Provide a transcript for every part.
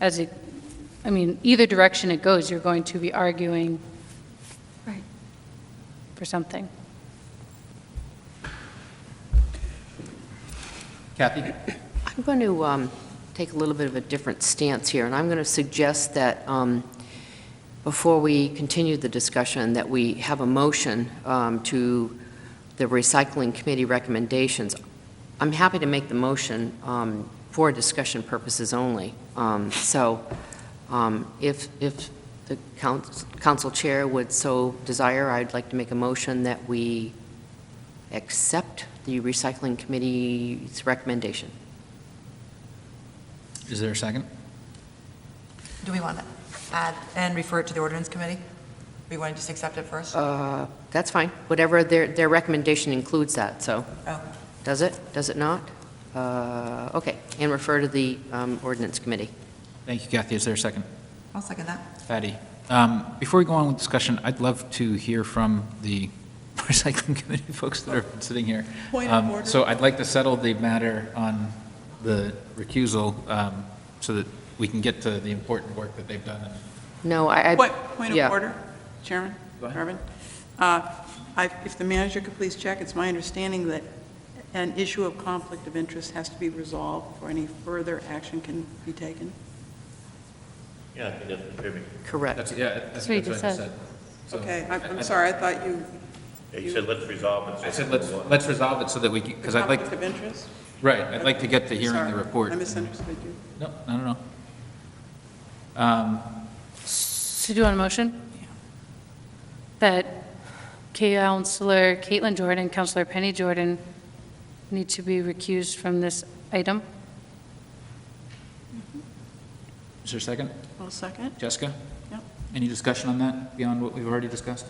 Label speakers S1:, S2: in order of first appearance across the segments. S1: as it, I mean, either direction it goes, you're going to be arguing
S2: Right.
S1: for something.
S3: Kathy?
S4: I'm going to take a little bit of a different stance here, and I'm going to suggest that um, before we continue the discussion, that we have a motion um, to the recycling committee recommendations. I'm happy to make the motion um, for discussion purposes only. Um, So um, if, if the couns- council chair would so desire, I'd like to make a motion that we accept the recycling committee's recommendation.
S3: Is there a second?
S2: Do we want to add and refer it to the ordinance committee? We want to just accept it first?
S4: Uh, That's fine, whatever, their, their recommendation includes that, so,
S2: Oh.
S4: does it, does it not? Uh, Okay, and refer to the um, ordinance committee.
S3: Thank you, Kathy. Is there a second?
S2: I'll second that.
S3: Patty? Um, Before we go on with discussion, I'd love to hear from the recycling committee folks that are sitting here.
S5: Point of
S3: Um,
S5: order.
S3: So I'd like to settle the matter on the recusal um, so that we can get to the important work that they've done.
S4: No, I, I...
S5: Point, point
S4: yeah.
S5: of order, Chairman,
S3: Go ahead.
S5: Irvin. Uh, I- If the manager could please check, it's my understanding that an issue of conflict of interest has to be resolved before any further action can be taken.
S6: Yeah, I think that's contributing.
S4: Correct.
S3: yeah,
S1: That's what he that's what I just said.
S5: Okay, I'm- I'm sorry, I thought you,
S6: He said, let's resolve it.
S3: I said, let's, let's resolve it so that we, because I'd like,
S5: conflict of interest?
S3: right, I'd like to get to hearing
S5: Sorry,
S3: the report.
S5: I misunderstood you.
S3: No, I don't know.
S1: So do you want a motion? That Counselor Caitlin Jordan, Counselor Penny Jordan need to be recused from this item?
S3: Is there a second?
S5: I'll second.
S3: Jessica?
S5: Yep.
S3: Any discussion on that beyond what we've already discussed?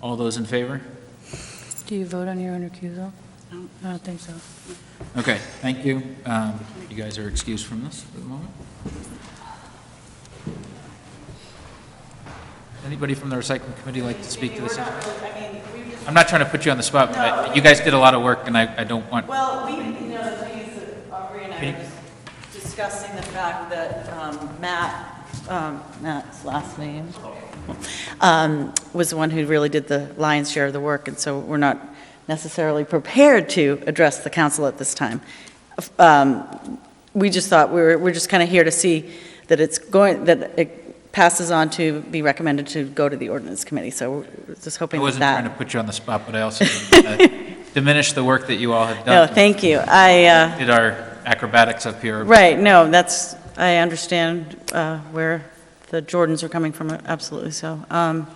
S3: All those in favor?
S1: Do you vote on your own recusal?
S5: No.
S1: I don't think so.
S3: Okay, thank you. Um, You guys are excused from this for the moment. Anybody from the recycling committee like to speak to this? I'm not trying to put you on the spot, but I- you guys did a lot of work, and I I don't want,
S7: Well, we, you know, the thing is that Aubrey and I were just discussing the fact that um, Matt, um, Matt's last name, um, was the one who really did the lion's share of the work, and so we're not necessarily prepared to address the council at this time. Um, We just thought, we were, we're just kind of here to see that it's going, that it passes on to be recommended to go to the ordinance committee, so we're just
S3: I
S7: hoping that
S3: wasn't
S7: that.
S3: trying to put you on the spot, but I also didn't wanna diminish the work that you all have
S7: No,
S3: done.
S7: thank you. I, uh,
S3: Did our acrobatics up here.
S7: Right, no, that's, I understand uh, where the Jordans are coming from, absolutely so. Um,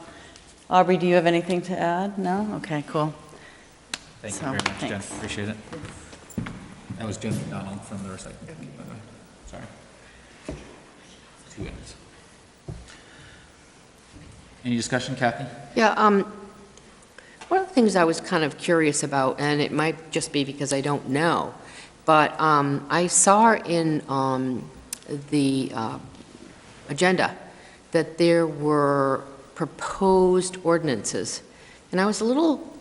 S7: Aubrey, do you have anything to add? No? Okay, cool.
S3: Thank you
S7: So,
S3: very much, Jen,
S7: thanks.
S3: appreciate it. That was Jen McDonald from the recycling committee, by the way, sorry. Two minutes. Any discussion, Kathy?
S4: Yeah, um, one of the things I was kind of curious about, and it might just be because I don't know, but um, I saw in um, the uh, agenda that there were proposed ordinances, and I was a little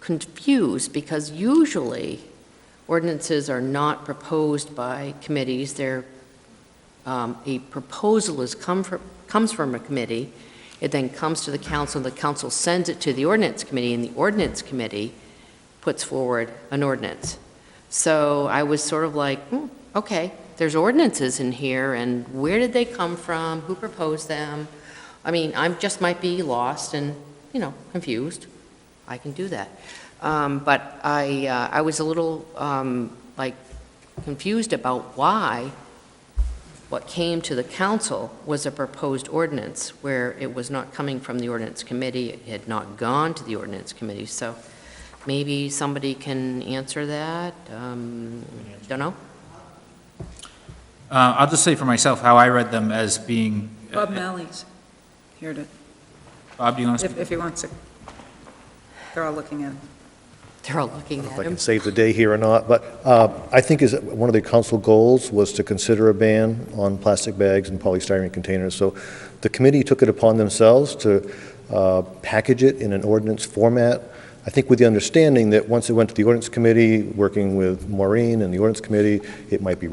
S4: confused, because usually ordinances are not proposed by committees, they're, um, a proposal is come from, comes from a committee, it then comes to the council, the council sends it to the ordinance committee, and the ordinance committee puts forward an ordinance. So I was sort of like, hmm, okay, there's ordinances in here, and where did they come from? Who proposed them? I mean, I'm, just might be lost and, you know, confused. I can do that. Um, But I, uh, I was a little, um, like, confused about why what came to the council was a proposed ordinance where it was not coming from the ordinance committee, it had not gone to the ordinance committee, so maybe somebody can answer that? Um, Don't know.
S3: Uh, I'll just say for myself how I read them as being.
S8: Bob Malley's here to,
S3: Bob, do you want to
S8: if,
S3: speak?
S8: if he wants to. They're all looking at him.
S4: They're all looking
S9: if
S4: at
S9: I
S4: him.
S9: can save the day here or not, but uh, I think is, one of the council goals was to consider a ban on plastic bags and polystyrene containers. So the committee took it upon themselves to uh, package it in an ordinance format, I think with the understanding that once it went to the ordinance committee, working with Maureen and the ordinance committee, it might be